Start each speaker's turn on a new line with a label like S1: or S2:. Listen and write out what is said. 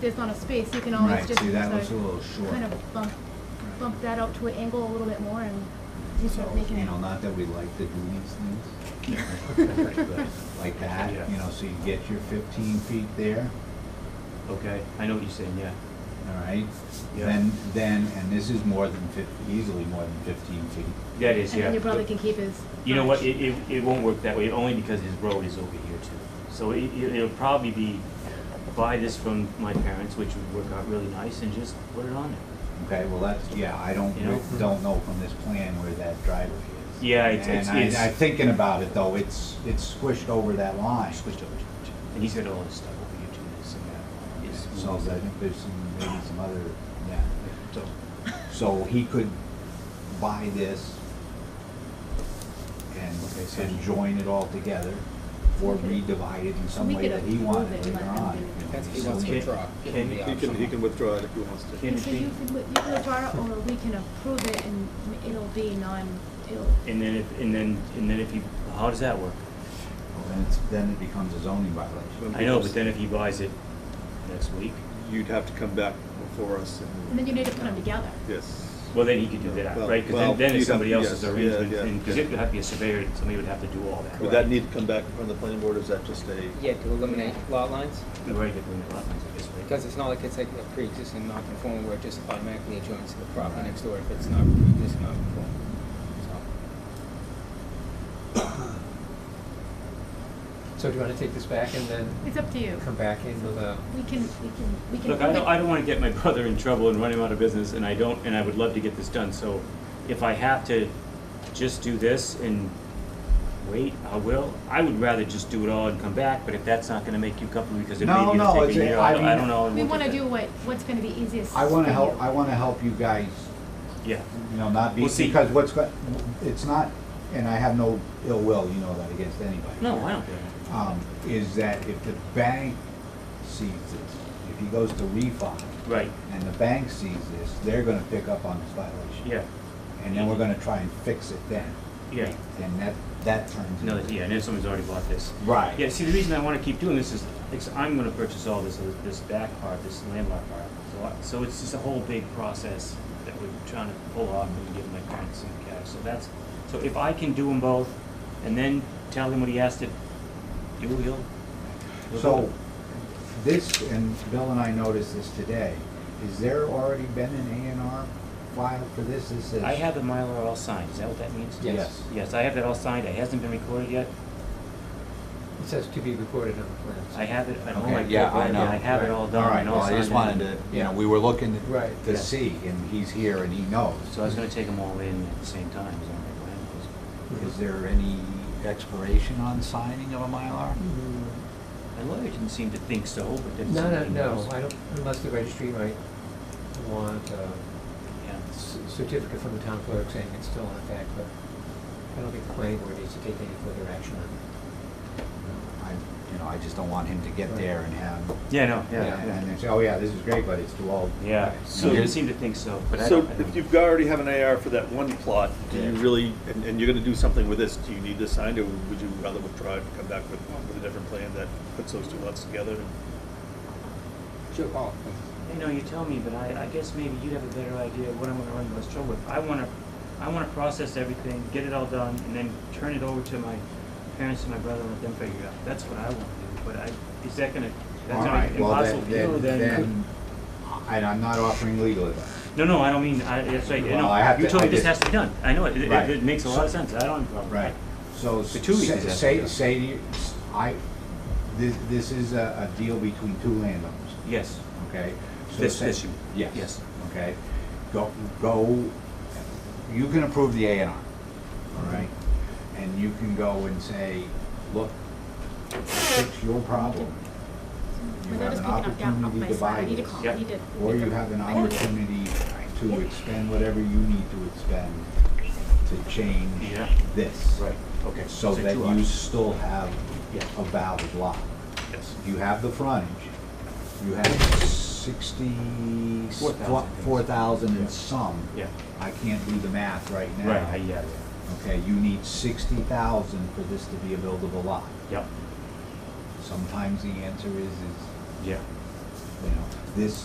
S1: there's not a space, you can always
S2: Right,
S1: just
S2: see, that
S1: sort
S2: looks a little
S1: of
S2: short.
S1: kind of bump,
S2: Right.
S1: bump that out to an angle a little bit more and sort
S2: So,
S1: of making
S2: you
S1: it.
S2: know, not that we like to do these things. but Like that, you know, so you get your fifteen feet there,
S3: Okay, I know what you're saying, yeah.
S2: all right?
S3: Yeah.
S2: Then, then, and this is more than fif, easily more than fifteen feet.
S3: That is,
S1: And
S3: yeah.
S1: then your brother can keep his.
S3: You know what,
S1: garage.
S3: it, it, it won't work that way, only because his road is over here too. So it, it- it'll probably be, buy this from my parents, which would work out really nice, and just put it on there.
S2: Okay, well, that's, yeah, I don't,
S3: You know?
S2: re- don't know from this plan where that driveway is.
S3: Yeah, it's- it's-
S2: And I,
S3: it's-
S2: I'm thinking about it though, it's, it's squished over that line.
S3: Switched over to it. And he's got all his stuff over here too, and so yeah. it's-
S2: So I think there's some, maybe some other, yeah.
S3: So,
S2: So he could buy this and,
S3: Okay, so-
S2: and join it all together or redivide it in some
S1: we
S2: way
S1: could
S2: that he
S1: approve
S2: wanted
S1: it,
S2: later
S1: let him do
S2: on.
S1: it.
S2: you know,
S4: That's if he
S2: so-
S4: wants to
S3: Okay.
S4: withdraw. Give him the
S3: Can-
S5: He can, he
S4: option.
S5: can withdraw it if he wants to.
S3: Can-
S1: And so you could, you could withdraw it, or we can approve it and it'll be non, it'll,
S3: and then, if and then, and then if he, how does that work?
S2: Well, Then it's, then it becomes a zoning violation.
S5: Well,
S3: I know, but then if he buys it next week,
S5: You'd have to come back before us
S1: and then
S5: and,
S1: you need to put them together.
S5: yes.
S3: well, then he could do that,
S5: Well,
S3: right? Because
S5: well,
S3: then, then
S5: you'd
S3: it's
S5: have-
S3: somebody else's
S5: yes, yeah,
S3: arrangement,
S5: yeah.
S3: and, because it would have to be a surveyor, somebody would have to do all that.
S5: Would that need to come back from the planning board, or is that just a?
S4: Yeah, to eliminate lot lines,
S3: We're already doing a lot of things like this, right?
S4: because it's not like it's like a pre-existing non-conforming where it just automatically adjoins to the property next door if it's not pre-existing non-conforming. So-
S6: So do you want to take this back and then
S1: It's up to you.
S6: come back in with a,
S1: We can, we can, we can.
S3: Look, I don't, I don't wanna get my brother in trouble and run him out of business, and I don't, and I would love to get this done, so if I have to just do this and wait, I will. I would rather just do it all and come back, but if that's not gonna make you comfortable, because it may
S2: No,
S3: be
S2: no,
S3: gonna take
S2: it's
S3: a
S2: a-
S3: year,
S2: I
S3: I don't, I
S2: mean-
S3: don't know. and
S1: We
S3: we'll
S1: wanna
S3: get
S1: do what, what's gonna be easiest.
S2: I wanna
S1: for
S2: help,
S1: you.
S2: I wanna help you guys,
S3: that. Yeah,
S2: you know, not be,
S3: Well, see-
S2: because what's, go- it's not, and I have no ill will, you know that, against anybody.
S3: no, I don't care.
S2: um, is that if the bank sees this, if he goes to refi,
S3: Right,
S2: and the bank sees this, they're gonna pick up on this violation.
S3: yeah,
S2: And then we're gonna try and fix it then,
S3: yeah,
S2: and that, that turns.
S3: no,
S2: into-
S3: yeah, and if someone's already bought this.
S2: Right.
S3: Yeah, see, the reason I wanna keep doing this is, because I'm gonna purchase all this, this back part, this landmark part. So I, so it's just a whole big process that we're trying to pull off and give my parents some cash, so that's, so if I can do them both and then tell him what he has to do, he'll. he'll do
S2: So,
S3: it.
S2: this, and Bill and I noticed this today, is there already been an A and R filed for this? This is.
S3: I have the Mylar all signed, is that what that means?
S6: Yes.
S2: Yes.
S3: Yes, I have that all signed, it hasn't been recorded yet,
S6: it says to be recorded on the plans.
S3: I have it, I don't
S2: Okay,
S3: like.
S2: yeah, I
S3: paperwork, and
S2: know.
S3: I have it all
S2: All
S3: done
S2: right,
S3: and all
S2: well,
S3: signed.
S2: I just wanted to, you know, we were looking
S6: Right.
S2: to
S3: Yeah.
S2: see, and he's here and he knows.
S3: So I was gonna take them all in at the same time, is that right?
S2: Is there any expiration on signing of a Mylar?
S6: Mm,
S3: My lawyer didn't seem to think so, but then.
S6: No, no,
S3: somebody
S6: no,
S3: knows.
S6: I don't, unless the registry might want a
S3: Yeah.
S6: c- certificate from the town clerk saying it's still in effect, but I don't think the planning board needs to take any further action on it.
S2: I, you know, I just don't want him to get there and have,
S3: Yeah, no,
S2: and and then say, oh yeah, this is great, but it's too old.
S3: Yeah, so
S2: You
S3: didn't
S2: just-
S3: seem to think so, but I
S5: So
S3: don't. I
S5: if
S3: don't-
S5: you've already have an AR for that one plot, do you
S2: Yeah.
S5: really, and, and you're gonna do something with this, do you need this signed, or would you rather withdraw it and come back with, with a different plan that puts those two lots together?
S4: Sure, Paul.
S3: You know, you tell me, but I, I guess maybe you'd have a better idea of what I'm gonna run the most trouble with. I wanna, I wanna process everything, get it all done, and then turn it over to my parents and my brother and let them figure it out. That's what I wanna do, but I, is that gonna, that's
S2: All
S3: not
S2: right, well,
S3: impossible
S2: then,
S3: to do,
S2: then,
S3: then.
S2: then, and I'm not offering legal advice.
S3: No, no, I don't mean, I, that's right,
S2: Well, I
S3: no,
S2: have
S3: you
S2: to-
S3: told
S2: I
S3: me this
S2: just-
S3: has to be done. I know it, it,
S2: Right.
S3: it makes a lot of sense, I don't. have a problem.
S2: Right, so
S3: For two reasons,
S2: say,
S3: that's-
S2: say,
S3: yeah.
S2: say to you, I, this, this is a, a deal between two landowners,
S3: Yes.
S2: okay? So
S3: This-
S2: say-
S3: this you-
S2: Yes.
S3: yes.
S2: Okay, go, go, you can approve the A and R, all right? And you can go and say, look, fix your problem. You
S1: Without
S2: have
S1: us
S2: an
S1: picking up down off
S2: opportunity
S1: my
S2: to
S1: side, I
S2: buy
S1: need to
S2: this.
S1: call,
S3: Yeah.
S1: I need to.
S2: Or
S1: make
S2: you
S1: a-
S2: have an
S1: I know.
S2: opportunity to expend whatever you need to expend to change
S3: Yeah.
S2: this.
S3: Right, okay.
S2: So that
S3: two
S2: you
S3: options.
S2: still have
S3: Yeah.
S2: a valid lot.
S5: Yes.
S2: You have the frontage, you have sixty,
S3: Four thousand, I think.
S2: four thousand and some.
S3: Yeah.
S2: I can't do the math right now.
S3: Right, I- yeah,
S2: Okay, you need sixty thousand for this to be a buildable lot.
S3: yeah, yep,
S2: Sometimes the answer is, is
S3: yeah.
S2: you know, this